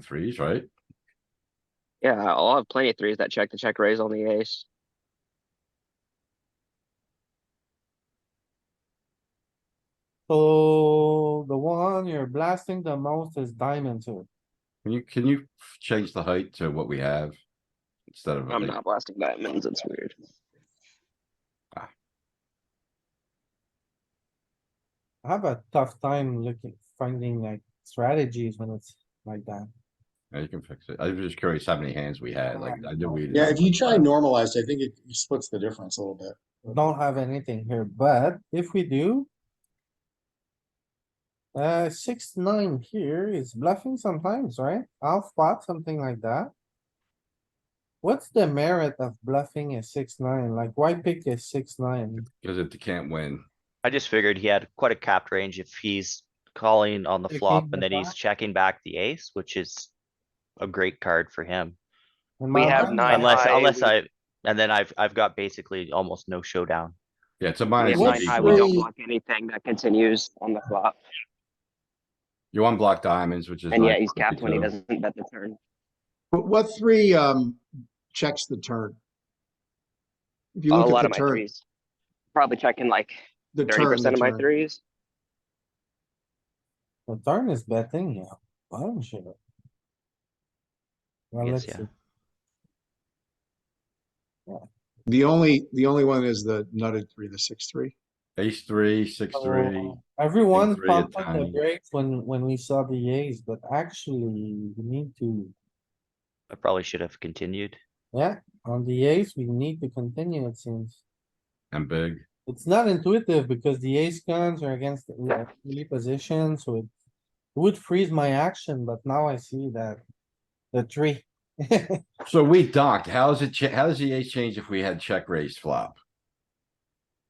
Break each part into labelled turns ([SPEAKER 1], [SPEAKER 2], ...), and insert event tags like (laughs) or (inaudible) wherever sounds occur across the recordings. [SPEAKER 1] threes, right?
[SPEAKER 2] Yeah, I'll have plenty of threes that check, the check raise on the ace.
[SPEAKER 3] So the one you're blasting the most is diamond two.
[SPEAKER 1] Can you, can you change the height to what we have? Instead of,
[SPEAKER 2] I'm
[SPEAKER 1] like-
[SPEAKER 2] not blasting diamonds, it's weird.
[SPEAKER 3] I have a tough time looking, finding like strategies when it's like that.
[SPEAKER 1] yeah, you can fix it. I was just curious how many hands we had, like, I knew we. didn't
[SPEAKER 4] Yeah,
[SPEAKER 1] have
[SPEAKER 4] if you
[SPEAKER 1] much,
[SPEAKER 4] try
[SPEAKER 1] but-
[SPEAKER 4] normalized, I think it splits the difference a little bit.
[SPEAKER 3] Don't have anything here, but if we do. Uh, six, nine here is bluffing sometimes, right? I'll spot something like that. What's the merit of bluffing a six, nine? Like why pick a six, nine?
[SPEAKER 1] Cause if they can't win,
[SPEAKER 5] I just figured he had quite a capped range if he's calling on the
[SPEAKER 3] Checking
[SPEAKER 5] flop
[SPEAKER 3] the
[SPEAKER 5] and then he's
[SPEAKER 3] flop.
[SPEAKER 5] checking back the ace, which is a great card for him.
[SPEAKER 3] In
[SPEAKER 2] We
[SPEAKER 3] my
[SPEAKER 2] have
[SPEAKER 3] mind,
[SPEAKER 2] nine
[SPEAKER 5] Unless,
[SPEAKER 2] high,
[SPEAKER 5] unless
[SPEAKER 2] we-
[SPEAKER 5] I, and then I've, I've got basically almost no showdown.
[SPEAKER 1] yeah, it's a
[SPEAKER 2] We
[SPEAKER 1] minus.
[SPEAKER 2] have
[SPEAKER 4] What's
[SPEAKER 2] nine
[SPEAKER 1] eight
[SPEAKER 2] high, we don't
[SPEAKER 1] equals-
[SPEAKER 4] the-
[SPEAKER 2] block anything that continues on the flop,
[SPEAKER 1] You unblock diamonds, which is.
[SPEAKER 2] and
[SPEAKER 1] like
[SPEAKER 2] yet he's capped when he
[SPEAKER 1] 52.
[SPEAKER 2] doesn't bet the turn.
[SPEAKER 4] But what three um checks the turn? If you
[SPEAKER 2] A
[SPEAKER 4] look
[SPEAKER 2] lot of
[SPEAKER 4] at the
[SPEAKER 2] my
[SPEAKER 4] turn,
[SPEAKER 2] threes. Probably checking like
[SPEAKER 4] the
[SPEAKER 2] thirty
[SPEAKER 4] turn,
[SPEAKER 2] percent
[SPEAKER 4] the
[SPEAKER 2] of my
[SPEAKER 4] turn.
[SPEAKER 2] threes.
[SPEAKER 3] The turn is betting, yeah, bottom shit. Well,
[SPEAKER 5] Yes,
[SPEAKER 3] let's
[SPEAKER 5] yeah.
[SPEAKER 3] see.
[SPEAKER 4] The only, the only one is the nutted three, the six, (coughs) three.
[SPEAKER 1] Ace three, six,
[SPEAKER 2] Oh.
[SPEAKER 1] three.
[SPEAKER 3] So, Everyone
[SPEAKER 1] three
[SPEAKER 3] pumped
[SPEAKER 1] at
[SPEAKER 3] on the
[SPEAKER 1] time.
[SPEAKER 3] brakes when, when we saw the A's, but actually, we need to,
[SPEAKER 5] I probably should have continued.
[SPEAKER 3] yeah, on the A's, we need to continue, it seems.
[SPEAKER 1] And big.
[SPEAKER 3] It's not intuitive because the ace guns are against the like, melee position, so it would freeze my action, but now I see that the tree.
[SPEAKER 1] So we docked. How's it, cha- how does the ace change if we had check raise flop?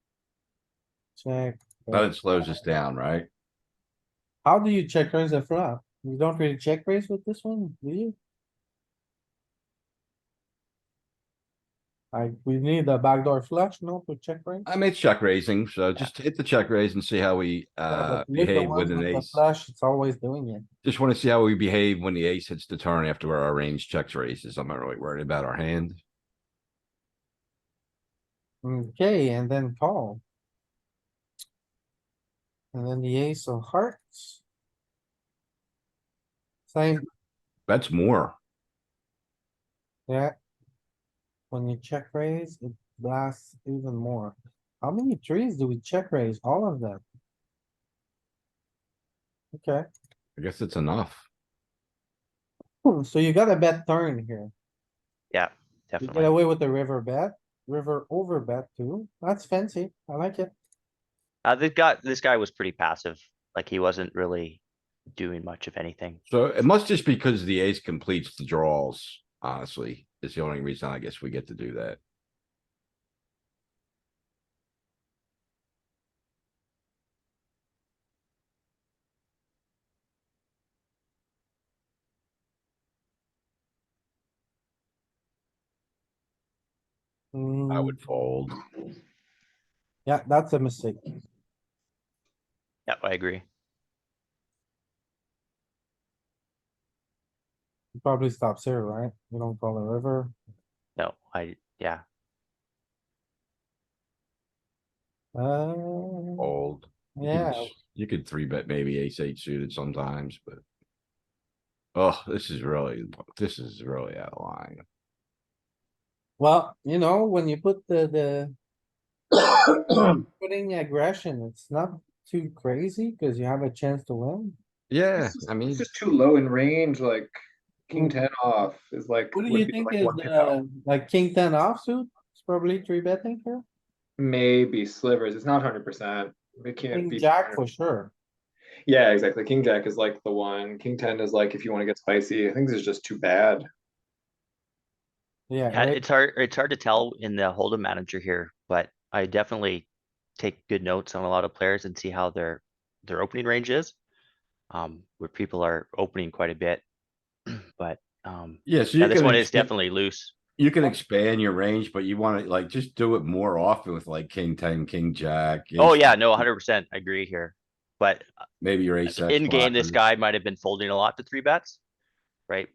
[SPEAKER 3] (laughs) Check.
[SPEAKER 1] But it slows us down, right?
[SPEAKER 3] How do you check raise a flop? You don't really check raise with this one, do you? Like, we need a backdoor flush, no, to check raise?
[SPEAKER 1] I made check raising, so just hit the check raise and see how we,
[SPEAKER 3] Yeah,
[SPEAKER 1] uh,
[SPEAKER 3] but with the
[SPEAKER 1] behave
[SPEAKER 3] one
[SPEAKER 1] with an
[SPEAKER 3] the
[SPEAKER 1] ace.
[SPEAKER 3] Flush, it's always doing it.
[SPEAKER 1] Just wanna see how we behave when the ace hits the turn after our range checks raises. I'm not really worried about our hand.
[SPEAKER 3] Okay, and then call. And then the ace of hearts. Same,
[SPEAKER 1] That's more.
[SPEAKER 3] yeah. When you check raise, it blasts even more. How many trees do we check raise? All of them? Okay,
[SPEAKER 1] I guess it's enough.
[SPEAKER 3] hmm, so you got a bet turn here.
[SPEAKER 5] Yeah,
[SPEAKER 3] You get
[SPEAKER 5] definitely.
[SPEAKER 3] away with the river bet, river over bet too. That's fancy. I like it.
[SPEAKER 5] Uh, this guy, this guy was pretty passive. Like he wasn't really doing much of anything.
[SPEAKER 1] So it must just because the ace completes the draws, honestly, is the only reason I guess we get to do that. I
[SPEAKER 3] Hmm.
[SPEAKER 1] would fold.
[SPEAKER 3] Yeah, that's a mistake.
[SPEAKER 5] Yeah, I agree.
[SPEAKER 3] It Probably stops here, right? We don't call the river.
[SPEAKER 5] No, I, yeah,
[SPEAKER 3] Uh,
[SPEAKER 1] Fold. You can
[SPEAKER 3] yeah,
[SPEAKER 1] s- You could three bet maybe ace eight suited sometimes, but. Oh, this is really, this is really out of line.
[SPEAKER 3] well, you know, when you put the, the, putting aggression, it's not too crazy because you have a chance to win.
[SPEAKER 1] Yeah, I mean,
[SPEAKER 6] It's just too low in range, like king ten off is like.
[SPEAKER 3] What do
[SPEAKER 6] would
[SPEAKER 3] you
[SPEAKER 6] be
[SPEAKER 3] think
[SPEAKER 6] like
[SPEAKER 3] is,
[SPEAKER 6] one pip out.
[SPEAKER 3] uh, like king ten offsuit? It's probably three betting here.
[SPEAKER 6] Maybe slivers, it's not hundred percent. We can't
[SPEAKER 3] King
[SPEAKER 6] be.
[SPEAKER 3] jack
[SPEAKER 6] 100%.
[SPEAKER 3] for sure.
[SPEAKER 6] Yeah, exactly. King jack is like the one. King ten is like if you wanna get spicy. I think this is just too bad.
[SPEAKER 3] Yeah,
[SPEAKER 5] Yeah,
[SPEAKER 3] right?
[SPEAKER 5] it's hard, it's hard to tell in the hold'em manager here, but I definitely take good notes on a lot of players and see how their, their opening range is. Um, where people are opening quite a bit, (clears throat) but, um,
[SPEAKER 1] yeah, so
[SPEAKER 5] yeah,
[SPEAKER 1] you
[SPEAKER 5] this
[SPEAKER 1] can,
[SPEAKER 5] one is
[SPEAKER 1] ex- you-
[SPEAKER 5] definitely loose.
[SPEAKER 1] you can expand your range, but you wanna like just do it more often with like king ten, king jack.
[SPEAKER 5] Oh,
[SPEAKER 1] ace-
[SPEAKER 5] yeah, no, hundred percent, I agree here, but uh,
[SPEAKER 1] Maybe your ace. X
[SPEAKER 5] in game, this
[SPEAKER 1] blockers.
[SPEAKER 5] guy might have been folding a lot to three bets. right?